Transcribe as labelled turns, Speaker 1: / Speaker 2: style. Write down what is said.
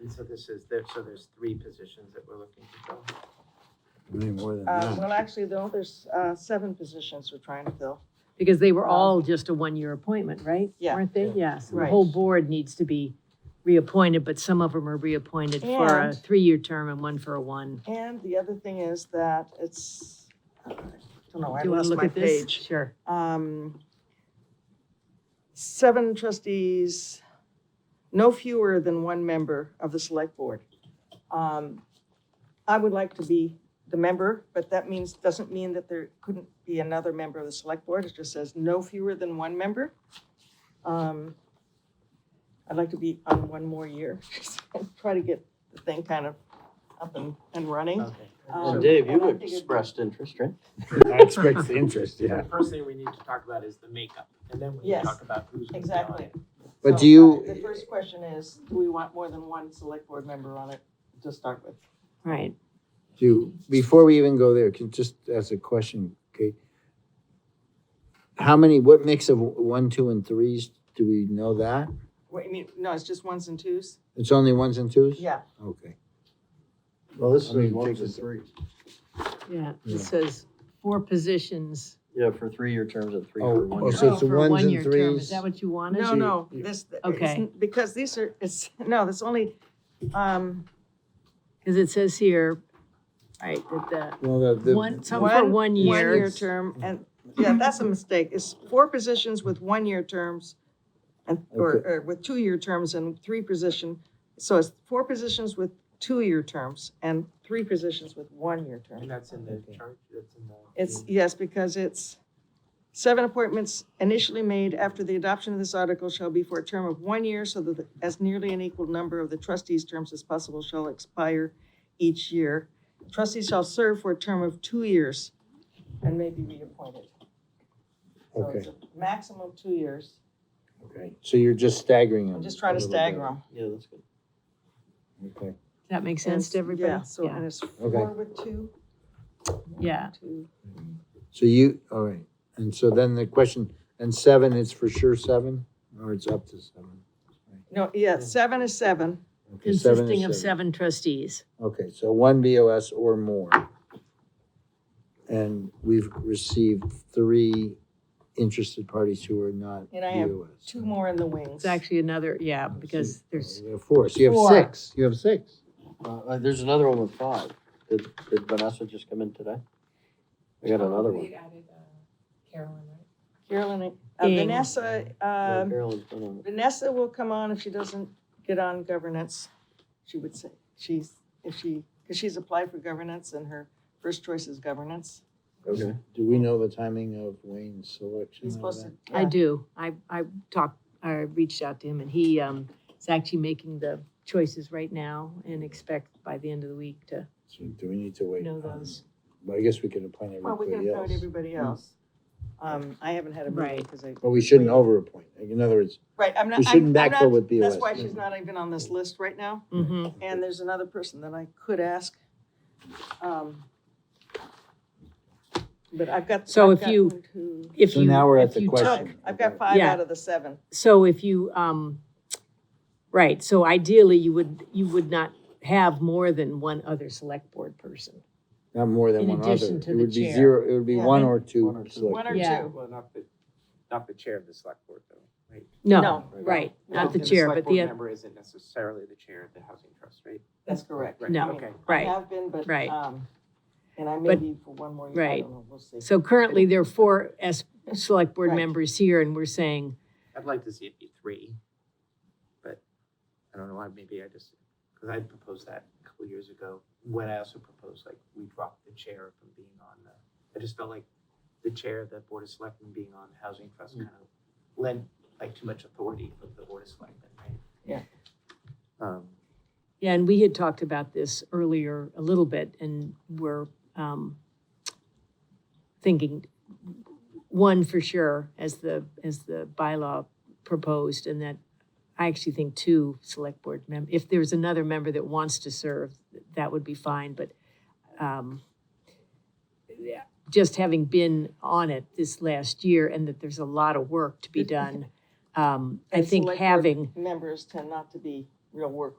Speaker 1: And so this is, there, so there's three positions that we're looking to fill.
Speaker 2: Way more than
Speaker 3: Uh,
Speaker 2: that.
Speaker 3: well, actually, no, there's, uh, seven positions we're trying to fill.
Speaker 4: Because they were all just a one-year appointment, right?
Speaker 3: Yeah.
Speaker 4: Weren't they? Yeah, so the
Speaker 3: Right.
Speaker 4: whole board needs to be reappointed, but some of them are reappointed for a
Speaker 3: And-
Speaker 4: three-year term and one for a one.
Speaker 3: And the other thing is that it's, uh, I don't know, Oh, I
Speaker 4: Do you want
Speaker 3: lost
Speaker 4: to look
Speaker 3: my
Speaker 4: at this?
Speaker 3: page.
Speaker 4: Sure.
Speaker 3: Um, Seven trustees, no fewer than one member of the select board. Um, I would like to be the member, but that means, doesn't mean that there couldn't be another member of the select board. It just says no fewer than one member. Um, I'd like to be on one more year, try to get the thing kind of up and, and running.
Speaker 1: Okay.
Speaker 3: Um,
Speaker 5: And Dave,
Speaker 3: and I
Speaker 5: you've
Speaker 3: figured-
Speaker 5: expressed interest, right?
Speaker 2: I expect the interest,
Speaker 1: So
Speaker 2: yeah.
Speaker 1: The first thing we need to talk about is the makeup, and then we can
Speaker 3: Yes.
Speaker 1: talk about who's. gonna be on
Speaker 3: Exactly.
Speaker 1: it.
Speaker 2: But
Speaker 3: So,
Speaker 2: do you-
Speaker 3: uh, The first question is, do we want more than one select board member on it to start with?
Speaker 4: Right.
Speaker 2: Do, before we even go there, can just ask a question, okay? How many, what mix of one, two, and threes, do we know that?
Speaker 3: What, you mean, no, it's just ones and twos?
Speaker 2: It's only ones and twos?
Speaker 3: Yeah.
Speaker 2: Okay.
Speaker 6: Well, this
Speaker 2: I mean,
Speaker 6: is
Speaker 2: what
Speaker 6: takes
Speaker 2: was
Speaker 6: us
Speaker 2: it?
Speaker 6: three.
Speaker 4: Yeah,
Speaker 2: Yeah.
Speaker 4: it says four positions.
Speaker 5: Yeah, for three-year terms and three
Speaker 2: Oh,
Speaker 5: for one
Speaker 2: oh,
Speaker 5: year.
Speaker 2: so it's
Speaker 4: for a
Speaker 2: ones and
Speaker 4: one-year term.
Speaker 2: threes.
Speaker 4: Is that what you wanted?
Speaker 3: No,
Speaker 2: you-
Speaker 3: no,
Speaker 2: you-
Speaker 3: this, it's
Speaker 4: Okay.
Speaker 3: n- because these are, it's, no, that's only, um,
Speaker 4: Because it says here, right, that
Speaker 2: Well, the,
Speaker 4: the,
Speaker 2: the.
Speaker 4: one, some for
Speaker 3: One-
Speaker 4: one
Speaker 3: one-year
Speaker 4: year.
Speaker 3: term, and, yeah, that's a mistake. It's four positions with one-year terms and, or,
Speaker 2: Okay.
Speaker 3: or with two-year terms and three position. So it's four positions with two-year terms and three positions with one-year terms.
Speaker 1: And that's in the
Speaker 2: Okay.
Speaker 1: chart, that's in the.
Speaker 3: It's, yes, because it's, seven appointments initially made after the adoption of this article shall be for a term of one year so that as nearly an equal number of the trustees' terms as possible shall expire each year. Trustees shall serve for a term of two years and may be reappointed. So it's
Speaker 2: Okay,
Speaker 3: a Maximum two years.
Speaker 2: okay. So you're just staggering them.
Speaker 3: I'm just trying
Speaker 2: a
Speaker 3: to
Speaker 2: little
Speaker 3: stagger them.
Speaker 5: Yeah, that's good.
Speaker 2: bit. Okay.
Speaker 4: Does that make sense to everybody?
Speaker 3: Yeah, so, and it's four
Speaker 2: Okay.
Speaker 3: with two.
Speaker 4: Yeah.
Speaker 3: Two.
Speaker 2: So you, all right, and so then the question, and seven is for sure seven, or it's up to seven?
Speaker 3: No, yeah, seven is seven.
Speaker 2: Okay, seven is
Speaker 4: Consisting of seven trustees.
Speaker 2: Okay, so one BOS or more. And we've received three interested parties who are not
Speaker 3: And I have
Speaker 2: BOS.
Speaker 3: Two more in the wings.
Speaker 4: It's actually another, yeah, because there's,
Speaker 2: You have Four, so you have
Speaker 3: Four.
Speaker 2: six, you have six.
Speaker 5: Uh, uh, there's another one with five. Did, did Vanessa just come in today? I got another one.
Speaker 3: Carolyn, uh,
Speaker 4: Ing.
Speaker 3: Vanessa,
Speaker 5: Yeah,
Speaker 3: um,
Speaker 5: Carolyn's been on it.
Speaker 3: Vanessa will come on if she doesn't get on governance, she would say. She's, if she, because she's applied for governance and her first choice is governance.
Speaker 5: Okay.
Speaker 2: Do we know the timing of Wayne's selection? of
Speaker 3: She's supposed to.
Speaker 2: that?
Speaker 4: I
Speaker 3: yeah.
Speaker 4: do. I, I talked, I reached out to him and he, um, is actually making the choices right now and expect by the end of the week to
Speaker 2: So do we need to wait?
Speaker 4: know
Speaker 2: on-
Speaker 4: those.
Speaker 2: But I guess we can appoint
Speaker 3: Well, we
Speaker 2: everybody
Speaker 3: can appoint
Speaker 2: else.
Speaker 3: everybody else. Um, I haven't had a meeting
Speaker 4: Right.
Speaker 3: because I.
Speaker 2: But we shouldn't overappoint. In other words,
Speaker 3: Right, I'm not.
Speaker 2: we
Speaker 3: I-
Speaker 2: shouldn't
Speaker 3: I'm
Speaker 2: backfill
Speaker 3: not-
Speaker 2: with BOS.
Speaker 3: That's why she's not even on this list right now.
Speaker 4: Mhm.
Speaker 3: And there's another person that I could ask. um, But I've got.
Speaker 4: So
Speaker 3: I've
Speaker 4: if
Speaker 3: got
Speaker 4: you-
Speaker 3: one, two,
Speaker 4: If
Speaker 2: So
Speaker 4: you-
Speaker 2: now we're
Speaker 4: if
Speaker 2: at the
Speaker 4: you took-
Speaker 2: question.
Speaker 3: I've got five
Speaker 4: Yeah.
Speaker 3: out of the seven.
Speaker 4: So if you, um, right, so ideally you would, you would not have more than one other select board person.
Speaker 2: Not more than
Speaker 4: in
Speaker 2: one other.
Speaker 4: addition to
Speaker 2: It
Speaker 4: the
Speaker 2: would be
Speaker 4: chair.
Speaker 2: zero, it would be
Speaker 3: Yeah.
Speaker 2: one or two.
Speaker 5: One or two.
Speaker 2: select-
Speaker 3: One or
Speaker 4: Yeah.
Speaker 3: two.
Speaker 1: Well, not the, not the chair of the select board, though, right?
Speaker 4: No,
Speaker 3: No,
Speaker 4: right, not the
Speaker 1: And
Speaker 4: chair,
Speaker 1: select
Speaker 4: but
Speaker 1: board
Speaker 4: the, oth-
Speaker 1: Member isn't necessarily the chair of the housing trust, right?
Speaker 3: That's correct.
Speaker 1: Right,
Speaker 4: No.
Speaker 1: Okay.
Speaker 3: I
Speaker 4: right.
Speaker 3: have been, but,
Speaker 4: Right.
Speaker 3: um, and I may
Speaker 4: But-
Speaker 3: be for one more year, I
Speaker 4: right.
Speaker 3: don't know, we'll see.
Speaker 4: So currently there are four S, select board
Speaker 3: Right.
Speaker 4: members here and we're saying,
Speaker 1: I'd like to see it be three, but I don't know why, maybe I just, because I proposed that a couple years ago, when I also proposed, like, we dropped the chair from being on the, I just felt like the chair of the Board of Selectmen being on the Housing Trust kind of lent, like, too much authority for the Board of Selectmen, right?
Speaker 3: Yeah.
Speaker 1: Um,
Speaker 4: Yeah, and we had talked about this earlier a little bit, and we're um, thinking one for sure as the, as the bylaw proposed, and that I actually think two select board mem, if there's another member that wants to serve, that would be fine, but um, yeah, just having been on it this last year, and that there's a lot of work to be done, um, I
Speaker 3: And
Speaker 4: think
Speaker 3: select board
Speaker 4: having
Speaker 3: Members tend not to be real work